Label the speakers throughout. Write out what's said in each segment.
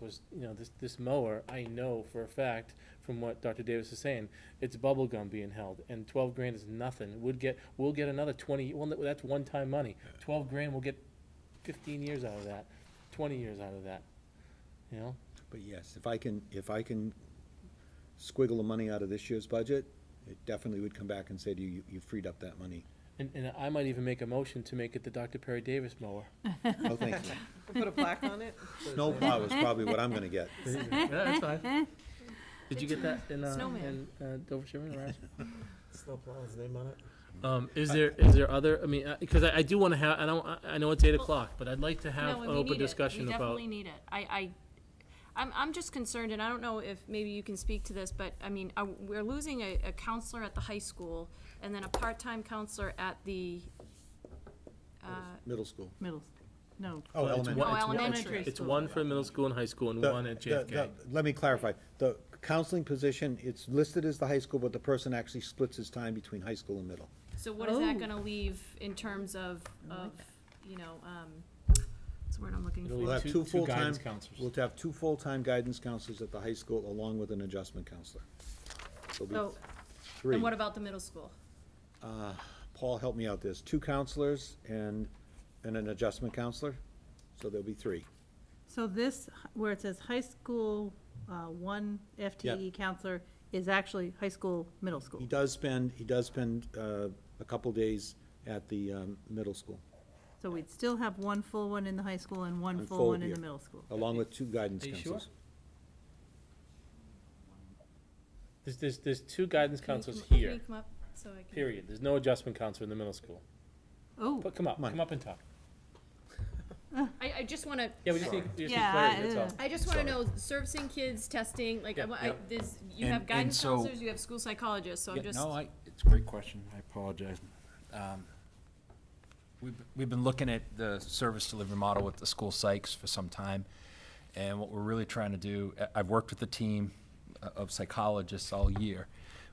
Speaker 1: was, you know, this, this mower, I know for a fact, from what Dr. Davis is saying, it's bubble gum being held, and twelve grand is nothing, would get, we'll get another twenty, well, no, that's one-time money, twelve grand, we'll get fifteen years out of that, twenty years out of that, you know?
Speaker 2: But yes, if I can, if I can squiggle the money out of this year's budget, it definitely would come back and say to you, you- you freed up that money.
Speaker 1: And, and I might even make a motion to make it the Dr. Perry Davis mower.
Speaker 2: Oh, thank you.
Speaker 3: Put a plaque on it?
Speaker 2: Snow plow is probably what I'm gonna get.
Speaker 1: Yeah, That's fine. Did you get that in, uh, in
Speaker 4: Snowman.
Speaker 1: uh, Dover Sherman or Ashland?
Speaker 5: Snowplow is the name on it.
Speaker 1: Um, is there, is there other, I mean, because I, I do want to have, I don't, I- I know it's eight o'clock, but I'd like to have an
Speaker 4: No, and we need
Speaker 1: open
Speaker 4: it.
Speaker 1: discussion
Speaker 4: We
Speaker 1: about.
Speaker 4: definitely need it. I, I, I'm, I'm just concerned, and I don't know if maybe you can speak to this, but, I mean, uh, we're losing a, a counselor at the high school, and then a part-time counselor at the, uh,
Speaker 2: Middle school.
Speaker 6: Middle, no.
Speaker 2: Oh,
Speaker 1: It's
Speaker 2: elementary.
Speaker 1: one-
Speaker 4: Oh,
Speaker 1: it's one-
Speaker 4: elementary
Speaker 1: It's
Speaker 6: school.
Speaker 1: one for middle school and high school and
Speaker 2: The-
Speaker 1: one at
Speaker 2: the-
Speaker 1: JFK.
Speaker 2: the- Let me clarify. The counseling position, it's listed as the high school, but the person actually splits his time between high school and middle.
Speaker 4: so what is that
Speaker 6: Oh.
Speaker 4: gonna leave in terms of,
Speaker 6: I like
Speaker 4: of,
Speaker 6: that.
Speaker 4: you know, um, what's the word I'm looking
Speaker 1: It'll
Speaker 2: We'll
Speaker 4: for?
Speaker 1: leave
Speaker 2: have
Speaker 1: two-
Speaker 2: two
Speaker 1: two
Speaker 2: full-time-
Speaker 1: guidance counselors.
Speaker 2: We'll have two full-time guidance counselors at the high school along with an adjustment counselor. There'll
Speaker 4: So,
Speaker 2: be
Speaker 4: and
Speaker 2: three.
Speaker 4: what about the middle school?
Speaker 2: Paul, help me out. There's two counselors and, and an adjustment counselor, so there'll be three.
Speaker 6: So this, where it says high school, uh, one FTE E counselor is actually high school, middle
Speaker 2: He
Speaker 6: school.
Speaker 2: does spend, he does spend uh, a couple days at the um, middle school,
Speaker 6: So we'd still have one full one in the high school and one
Speaker 2: One
Speaker 6: full
Speaker 2: full
Speaker 6: one in
Speaker 2: year.
Speaker 6: the middle school.
Speaker 2: along with two guidance
Speaker 1: Are you sure?
Speaker 2: counselors.
Speaker 1: There's, there's, there's two guidance
Speaker 4: Can you
Speaker 1: counselors
Speaker 4: come- Can
Speaker 1: here,
Speaker 4: you come up so I can?
Speaker 1: period. There's no adjustment counselor in the middle school.
Speaker 6: Oh,
Speaker 1: But come up,
Speaker 2: Come on.
Speaker 1: come up and talk.
Speaker 4: I, I just wanna
Speaker 1: Yeah, we just need, we just need
Speaker 6: Yeah,
Speaker 1: clarity, that's
Speaker 6: I-
Speaker 1: all.
Speaker 4: I just want to
Speaker 2: Sorry.
Speaker 4: know servicing kids, testing, like I,
Speaker 1: Yeah,
Speaker 4: wa-
Speaker 1: yeah.
Speaker 4: I, this, you
Speaker 7: And-
Speaker 4: have guidance
Speaker 7: and so-
Speaker 4: counselors, you have school psychologists, so I'm
Speaker 7: Yeah,
Speaker 4: just.
Speaker 7: No, I, it's a great question, I apologize. Um, We've, we've been looking at the service delivery model with the school psychs for some time, and what we're really trying to do, I- I've worked with a team uh, of psychologists all year.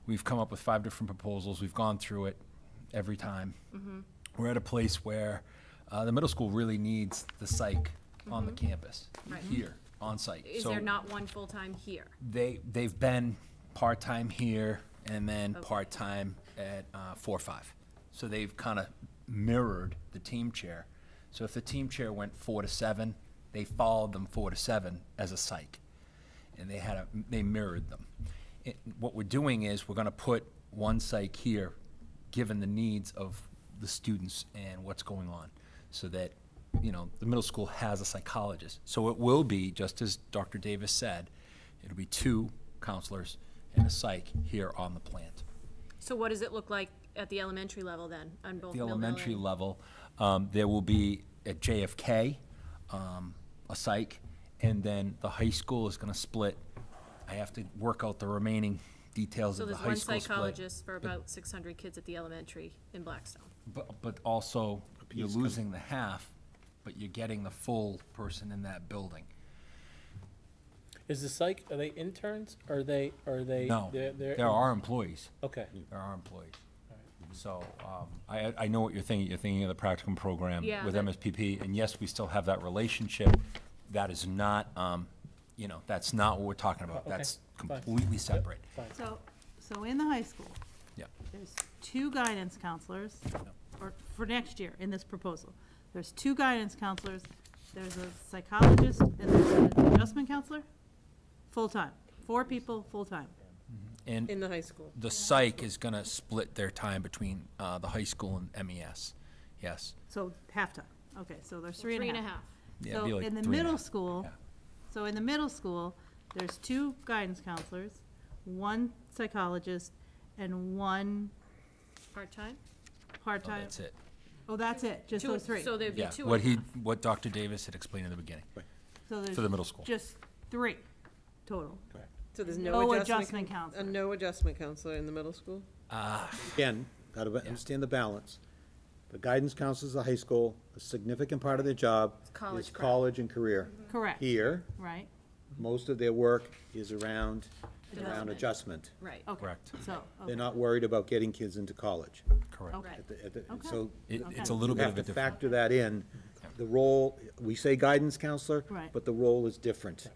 Speaker 7: We've come up with five different proposals, we've gone through it every time.
Speaker 4: Mm-hmm.
Speaker 7: We're at a place where uh, the middle school really needs the psych on the campus,
Speaker 4: Mm-hmm. Right.
Speaker 7: here, on site.
Speaker 4: Is
Speaker 7: So-
Speaker 4: there not one full-time here?
Speaker 7: they they've been part time here and then part time at uh, four or five. So they've kind of mirrored the team chair. So if the team chair went four to seven, they followed them four to seven as a psych, and they had a, they mirrored them. It, what we're doing is we're going to put one psych here, given the needs of the students and what's going on, so that you know the middle school has a psychologist. So it will be just as Dr. Davis said, It'll be two counselors and a psych here on the plant.
Speaker 4: So what does it look like at the elementary level then, on both
Speaker 7: The
Speaker 4: Millville
Speaker 7: elementary
Speaker 4: and-
Speaker 7: level, um, there will be at JFK, um, a psych, and then the high school is gonna split. I have to work out the remaining details
Speaker 4: So
Speaker 7: of the
Speaker 4: there's
Speaker 7: high
Speaker 4: one
Speaker 7: school split.
Speaker 4: psychologist for about six hundred kids at the elementary in Blackstone.
Speaker 7: But, but also, you're
Speaker 2: piece com-
Speaker 7: losing the half, but you're getting the full person in that building.
Speaker 1: Is the psych, are they interns? Are they, are they?
Speaker 7: No,
Speaker 1: they're- they're-
Speaker 7: there are employees.
Speaker 1: Okay.
Speaker 7: There are employees. So, um, I, I know what you're thinking, you're thinking of the practicum program
Speaker 4: Yeah,
Speaker 7: with
Speaker 4: but-
Speaker 7: MSPP, and yes, we still have that relationship. That is not, um, you know, that's not what we're talking about,
Speaker 1: Okay,
Speaker 7: that's
Speaker 1: fine.
Speaker 7: completely separate.
Speaker 1: Fine.
Speaker 6: so, so in the high school,
Speaker 7: Yeah,
Speaker 6: there's two guidance counselors, or for next year in this proposal. There's two guidance counselors, there's a psychologist and there's an adjustment counselor, full-time, four people, full-time.
Speaker 7: and
Speaker 3: In the high school.
Speaker 7: the psych is gonna split their time between, uh, the high school and MES, yes.
Speaker 6: So half-time, okay, so there's
Speaker 4: Three and a half.
Speaker 7: Yeah, it'd be
Speaker 6: So
Speaker 7: like
Speaker 6: in the
Speaker 7: three and a
Speaker 6: middle
Speaker 7: half.
Speaker 6: school,
Speaker 7: Yeah.
Speaker 6: so in the middle school, there's two guidance counselors, one psychologist, and one
Speaker 4: part-time?
Speaker 7: Oh,
Speaker 6: part-time.
Speaker 7: That's it,
Speaker 6: Oh, that's it, just
Speaker 4: Two-
Speaker 6: those three.
Speaker 4: So there'd be
Speaker 7: yeah,
Speaker 4: two
Speaker 7: what
Speaker 4: and a
Speaker 7: he,
Speaker 4: half.
Speaker 7: what Dr. Davis had explained in the beginning,
Speaker 6: So
Speaker 7: for the
Speaker 6: there's
Speaker 7: middle school.
Speaker 6: just three total.
Speaker 3: So there's
Speaker 6: No
Speaker 3: no adjustment.
Speaker 6: adjustment
Speaker 3: coun-
Speaker 6: counselor.
Speaker 3: A no adjustment counselor in the middle school?
Speaker 7: Ah,
Speaker 2: Again, gotta ba- understand the balance. The guidance counselors at the high school, a significant part of their job
Speaker 4: college
Speaker 2: is
Speaker 4: prep.
Speaker 2: college and career.
Speaker 6: Correct.
Speaker 2: Here,
Speaker 6: Right,
Speaker 2: most of their work is around, around
Speaker 4: Development.
Speaker 2: adjustment.
Speaker 4: Right.
Speaker 6: okay.
Speaker 7: Correct.
Speaker 6: So,
Speaker 2: They're
Speaker 6: okay,
Speaker 2: not worried about getting kids into college.
Speaker 7: Correct.
Speaker 6: okay,
Speaker 2: At the- at the-
Speaker 6: Okay.
Speaker 2: So
Speaker 7: It,
Speaker 6: Okay.
Speaker 7: it's a little
Speaker 2: you
Speaker 7: bit of
Speaker 2: have
Speaker 7: a
Speaker 2: to
Speaker 7: different.
Speaker 2: factor that in. The role, we say guidance counselor,
Speaker 6: Right.
Speaker 2: but the role is different.